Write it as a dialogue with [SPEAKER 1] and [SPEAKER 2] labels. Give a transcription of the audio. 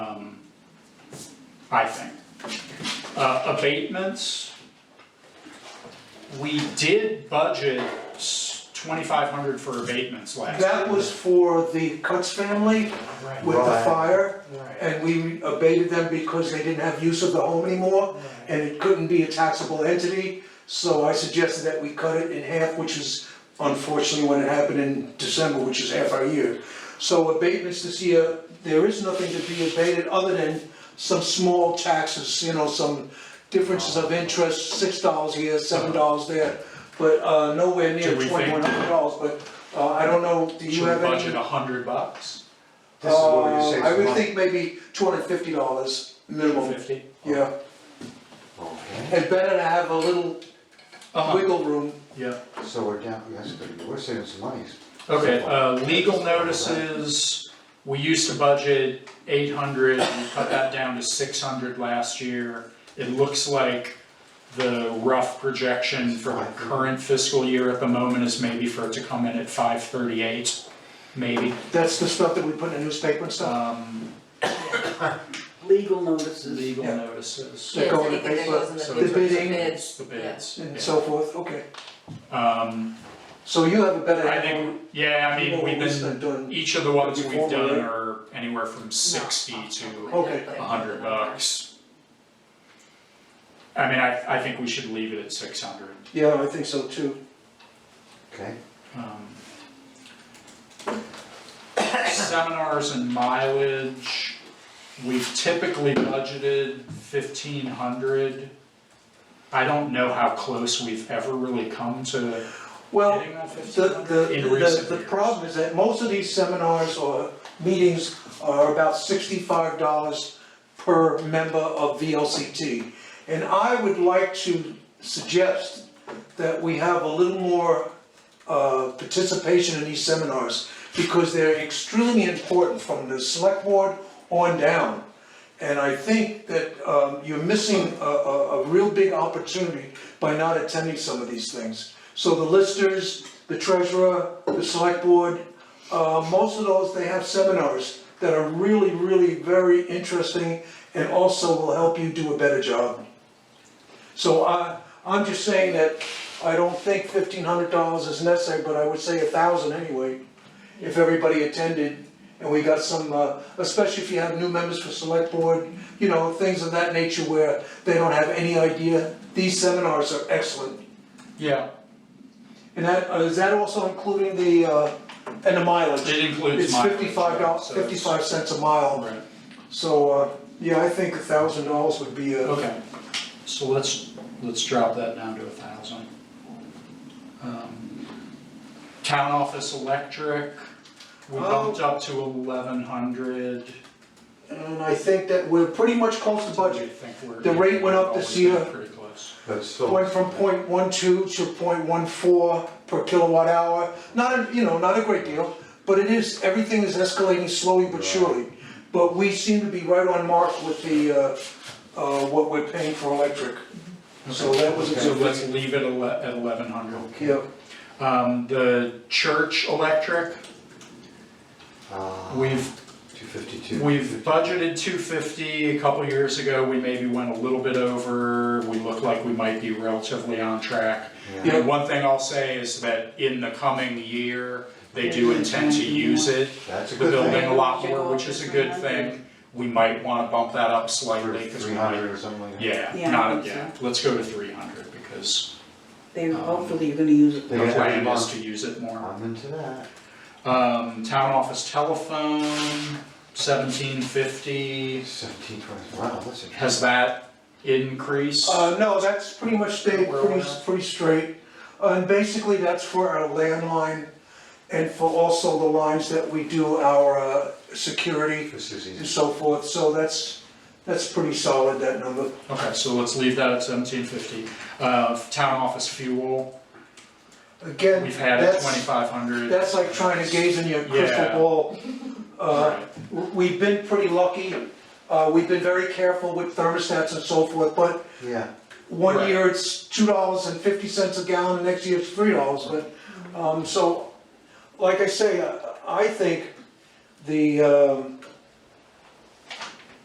[SPEAKER 1] um, I think. Uh, abatements, we did budget twenty-five hundred for abatements last year.
[SPEAKER 2] That was for the Cuts family with the
[SPEAKER 3] Right.
[SPEAKER 2] fire,
[SPEAKER 3] Right.
[SPEAKER 2] and we abated them because they didn't have use of the home anymore, and it couldn't be a taxable entity, so I suggested that we cut it in half, which is unfortunately when it happened in December, which is half our year. So abatements this year, there is nothing to be abated other than some small taxes, you know, some differences of interest, six dollars here, seven dollars there, but uh, nowhere near
[SPEAKER 1] Do Uh-huh. we think-
[SPEAKER 2] twenty-one hundred dollars, but uh, I don't know, do you
[SPEAKER 1] Should
[SPEAKER 2] have
[SPEAKER 1] we
[SPEAKER 2] any?
[SPEAKER 1] budget a hundred bucks?
[SPEAKER 3] This is what
[SPEAKER 2] Uh,
[SPEAKER 3] you say.
[SPEAKER 2] I would think maybe two hundred and fifty dollars minimum,
[SPEAKER 1] Fifty?
[SPEAKER 2] yeah,
[SPEAKER 3] Okay,
[SPEAKER 2] and better to have a little
[SPEAKER 1] Uh-huh,
[SPEAKER 2] wiggle room.
[SPEAKER 1] yeah.
[SPEAKER 3] so we're down, that's good, we're saving some monies.
[SPEAKER 1] Okay, uh, legal notices, we used to budget eight hundred, we cut that down to six hundred last year. It looks like the rough projection for the current fiscal year at the moment is maybe for it to come in at five thirty-eight, maybe.
[SPEAKER 2] That's the stuff that we put in the newspaper and stuff,
[SPEAKER 1] Um,
[SPEAKER 4] legal notices.
[SPEAKER 1] legal
[SPEAKER 2] Yeah.
[SPEAKER 1] notices,
[SPEAKER 2] That
[SPEAKER 5] Yeah,
[SPEAKER 2] go
[SPEAKER 5] so
[SPEAKER 2] in the
[SPEAKER 5] anything that
[SPEAKER 2] paper,
[SPEAKER 5] goes in the
[SPEAKER 1] so
[SPEAKER 5] paper,
[SPEAKER 2] the bidding,
[SPEAKER 5] bids,
[SPEAKER 1] the
[SPEAKER 5] yeah.
[SPEAKER 1] bids.
[SPEAKER 2] and
[SPEAKER 1] yeah.
[SPEAKER 2] so forth, okay,
[SPEAKER 1] Um,
[SPEAKER 2] so you have a better.
[SPEAKER 1] I think, yeah, I
[SPEAKER 2] You
[SPEAKER 1] mean,
[SPEAKER 2] know,
[SPEAKER 1] we've been,
[SPEAKER 2] listen, done-
[SPEAKER 1] each of the ones we've
[SPEAKER 2] Before we-
[SPEAKER 1] done are anywhere from sixty to
[SPEAKER 2] Okay.
[SPEAKER 1] a hundred bucks. I mean, I, I think we should leave it at six hundred.
[SPEAKER 2] yeah, I think so too.
[SPEAKER 3] Okay,
[SPEAKER 1] Um, Seminars and mileage, we've typically budgeted fifteen hundred. I don't know how close we've ever really come to
[SPEAKER 2] Well,
[SPEAKER 1] hitting that
[SPEAKER 2] The,
[SPEAKER 1] fifteen
[SPEAKER 2] the,
[SPEAKER 1] hundred in recent
[SPEAKER 2] the, the
[SPEAKER 1] years.
[SPEAKER 2] problem is that most of these seminars or meetings are about sixty-five dollars per member of VLCT. And I would like to suggest that we have a little more, uh, participation in these seminars because they're extremely important from the select board on down. And I think that, um, you're missing a, a, a real big opportunity by not attending some of these things. So the listers, the treasurer, the select board, uh, most of those, they have seminars that are really, really very interesting and also will help you do a better job. So I, I'm just saying that I don't think fifteen hundred dollars is necessary, but I would say a thousand anyway, if everybody attended and we got some, uh, especially if you have new members for select board, you know, things of that nature where they don't have any idea. These seminars are excellent.
[SPEAKER 1] Yeah,
[SPEAKER 2] And that, uh, is that also including the, uh, and the mileage?
[SPEAKER 1] it includes
[SPEAKER 2] It's
[SPEAKER 1] mileage.
[SPEAKER 2] fifty-five dollars,
[SPEAKER 1] so it's-
[SPEAKER 2] fifty-five cents a mile,
[SPEAKER 1] Right,
[SPEAKER 2] so, uh, yeah, I think a thousand dollars would be uh, a.
[SPEAKER 1] okay, so let's, let's drop that down to a thousand. Um, Town office electric, we
[SPEAKER 2] Oh.
[SPEAKER 1] bumped up to eleven hundred.
[SPEAKER 2] And I think that we're pretty much close to budget.
[SPEAKER 1] think we're.
[SPEAKER 2] The rate went up this
[SPEAKER 1] Always been
[SPEAKER 2] year.
[SPEAKER 1] Pretty close.
[SPEAKER 3] but still.
[SPEAKER 2] Went from 0.12 to 0.14 per kilowatt hour, not a, you know, not a great deal, but it is, everything is escalating slowly but surely. But we seem to be right on mark with the, uh, uh, what we're paying for electric, so that was a
[SPEAKER 1] Mm-hmm. So
[SPEAKER 2] good thing.
[SPEAKER 1] let's leave it ele- at eleven hundred.
[SPEAKER 2] Yeah,
[SPEAKER 1] Um, the church electric, we've
[SPEAKER 3] uh, Two fifty-two.
[SPEAKER 1] We've budgeted two fifty, a couple years ago, we maybe went a little bit over, we look like we might be relatively on track.
[SPEAKER 3] Yeah.
[SPEAKER 1] And one thing I'll say is that in the coming year, they do intend to use it,
[SPEAKER 3] That's a
[SPEAKER 1] the
[SPEAKER 3] good thing.
[SPEAKER 1] building a lot more, which is a good thing. We might wanna bump that up slightly, cause we
[SPEAKER 3] Three
[SPEAKER 1] might,
[SPEAKER 3] hundred or something like that.
[SPEAKER 1] yeah,
[SPEAKER 4] Yeah, I
[SPEAKER 1] not,
[SPEAKER 4] think
[SPEAKER 1] yeah, let's go to three hundred, because
[SPEAKER 4] They,
[SPEAKER 1] Um,
[SPEAKER 4] hopefully you're gonna use it.
[SPEAKER 3] They
[SPEAKER 1] the
[SPEAKER 3] got every
[SPEAKER 1] plan is
[SPEAKER 3] month.
[SPEAKER 1] to use it more.
[SPEAKER 3] I'm into that.
[SPEAKER 1] Um, town office telephone, seventeen fifty.
[SPEAKER 3] Seventeen twenty, wow, that's a.
[SPEAKER 1] Has that increased?
[SPEAKER 2] uh, no, that's pretty much stayed
[SPEAKER 1] Where
[SPEAKER 2] pretty,
[SPEAKER 1] we're at.
[SPEAKER 2] pretty straight. Uh, And basically, that's for our landline and for also the lines that we do our, uh, security.
[SPEAKER 3] This is
[SPEAKER 2] and
[SPEAKER 3] easy.
[SPEAKER 2] so forth, so that's, that's pretty solid, that number.
[SPEAKER 1] Okay, so let's leave that at seventeen fifty. Uh, town office fuel,
[SPEAKER 2] Again,
[SPEAKER 1] we've had it
[SPEAKER 2] that's,
[SPEAKER 1] twenty-five hundred.
[SPEAKER 2] that's like trying to gaze in your crystal
[SPEAKER 1] Yeah.
[SPEAKER 2] ball. Uh, w- We've been pretty lucky, uh, we've been very careful with thermostats and so forth, but
[SPEAKER 3] Yeah,
[SPEAKER 2] one
[SPEAKER 1] Right.
[SPEAKER 2] year it's two dollars and fifty cents a gallon, the next year it's three dollars, but, um, so, like I say, I, I think the, um,